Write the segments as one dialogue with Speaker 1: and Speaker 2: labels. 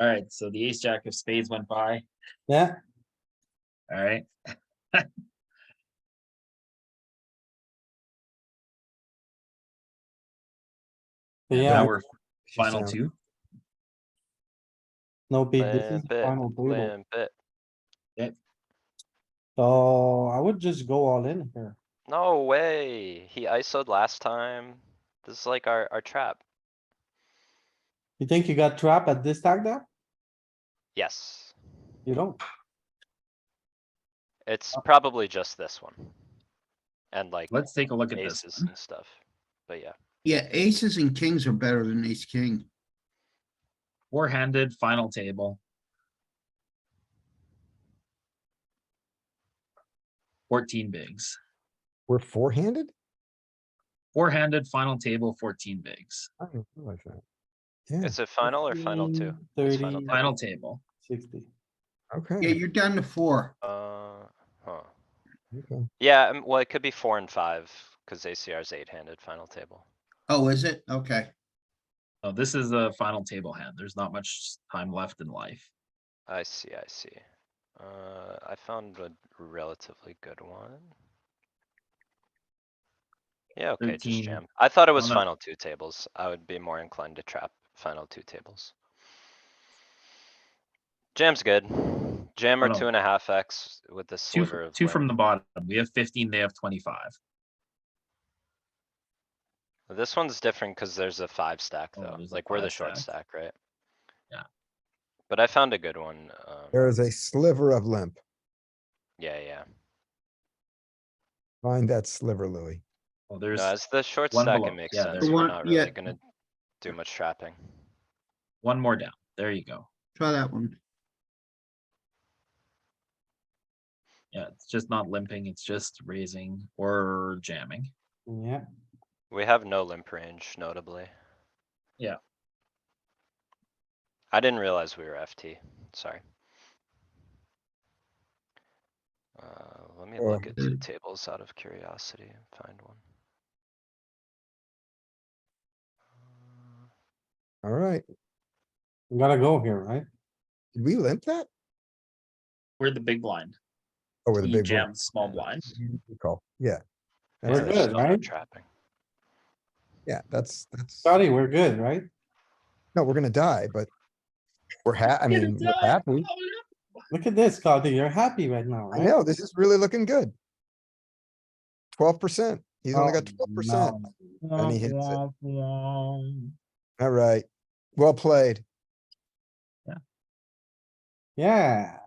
Speaker 1: Alright, so the ace jack of spades went by,
Speaker 2: Yeah,
Speaker 1: alright?
Speaker 2: yeah,
Speaker 1: Now we're final
Speaker 2: sound.
Speaker 1: two,
Speaker 2: no big, this is
Speaker 3: Limp
Speaker 2: the
Speaker 3: it,
Speaker 2: final table.
Speaker 3: limp it.
Speaker 2: So I would just go all in here.
Speaker 3: No way. He ISO'd last time. This is like our, our trap.
Speaker 2: You think you got trapped at this tag there?
Speaker 3: Yes,
Speaker 2: You don't.
Speaker 3: it's probably just this one. And like
Speaker 1: Uh, let's take a look at this.
Speaker 3: aces and stuff. But yeah,
Speaker 4: Yeah, aces and kings are better than ace king.
Speaker 1: Four-handed, final table. Fourteen bigs,
Speaker 5: We're four-handed?
Speaker 1: four-handed, final table, fourteen bigs,
Speaker 5: I didn't realize that.
Speaker 1: Hmm.
Speaker 5: Yeah,
Speaker 3: is it final or final two?
Speaker 2: 15,
Speaker 3: It's
Speaker 2: 30,
Speaker 3: final
Speaker 1: final table.
Speaker 2: Sixty.
Speaker 4: Yeah,
Speaker 5: okay.
Speaker 4: you're down to four.
Speaker 3: Uh, huh.
Speaker 5: okay.
Speaker 3: Yeah, um, well, it could be four and five, cuz ACR's eight-handed final table.
Speaker 4: Oh, is it? Okay.
Speaker 1: Oh, this is the final table hand. There's not much time left in life.
Speaker 3: I see, I see. Uh, I found a relatively good one. Yeah, okay, just
Speaker 1: 13.
Speaker 3: jam. I thought it was
Speaker 1: no.
Speaker 3: final two tables. I would be more inclined to trap final two tables. Jam's good. Jam or
Speaker 1: no.
Speaker 3: two and a half X with the
Speaker 1: Two,
Speaker 3: sliver
Speaker 1: f-
Speaker 3: of.
Speaker 1: two from the
Speaker 3: limp.
Speaker 1: bottom. We have fifteen, they have twenty-five.
Speaker 3: This one's different cuz there's a five stack
Speaker 1: Oh,
Speaker 3: though,
Speaker 1: there's a
Speaker 3: like we're the
Speaker 1: five
Speaker 3: short
Speaker 1: stack.
Speaker 3: stack, right?
Speaker 1: Yeah.
Speaker 3: But I found a good one. um,
Speaker 5: There is a sliver of limp.
Speaker 3: Yeah, yeah.
Speaker 5: Find that sliver, Louis.
Speaker 1: Well, there's
Speaker 3: No, as the short
Speaker 1: one
Speaker 3: stack,
Speaker 1: below.
Speaker 3: it makes
Speaker 1: Yeah,
Speaker 3: sense.
Speaker 1: there's
Speaker 3: We're
Speaker 4: one-
Speaker 3: not
Speaker 4: yeah.
Speaker 3: really gonna do much trapping.
Speaker 1: one more down. There you go.
Speaker 4: Try that one.
Speaker 1: Yeah, it's just not limping, it's just raising or jamming.
Speaker 2: Yeah,
Speaker 3: We have no limp range notably.
Speaker 1: Yeah.
Speaker 3: I didn't realize we were FT, sorry. Uh, let me
Speaker 5: Or-
Speaker 3: look at two tables out of curiosity and find one.
Speaker 5: All right.
Speaker 2: we gotta go here, right?
Speaker 5: Did we limp that?
Speaker 1: We're the big blind.
Speaker 5: Oh, with a
Speaker 1: He
Speaker 5: big one.
Speaker 1: jammed small blind.
Speaker 5: Good call.
Speaker 3: Yeah,
Speaker 5: Yeah.
Speaker 2: We're
Speaker 5: That's-
Speaker 3: there's
Speaker 2: good,
Speaker 3: still no
Speaker 2: right?
Speaker 3: Trapping.
Speaker 5: Yeah, that's, that's,
Speaker 2: Scotty, we're good, right?
Speaker 5: no, we're gonna die, but we're ha, I mean, we're happy.
Speaker 2: Look at this, Scotty, you're happy right now,
Speaker 5: I
Speaker 2: right?
Speaker 5: know, this is really looking good. Twelve percent. He's only got
Speaker 2: Oh,
Speaker 5: twelve percent. And he hits it.
Speaker 1: Womp, womp.
Speaker 5: All right. Well played.
Speaker 2: Yeah.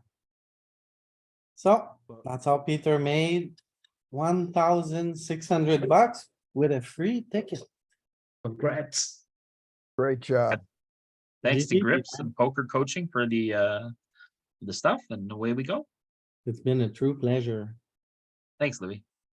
Speaker 2: So that's how Peter made one thousand six hundred bucks with a free ticket.
Speaker 1: Congrats.
Speaker 5: Great job.
Speaker 1: Thanks to
Speaker 2: GG,
Speaker 1: Grips and Poker Coaching for the, uh, the stuff and away we go.
Speaker 2: It's been a true pleasure.
Speaker 1: Thanks, Louis.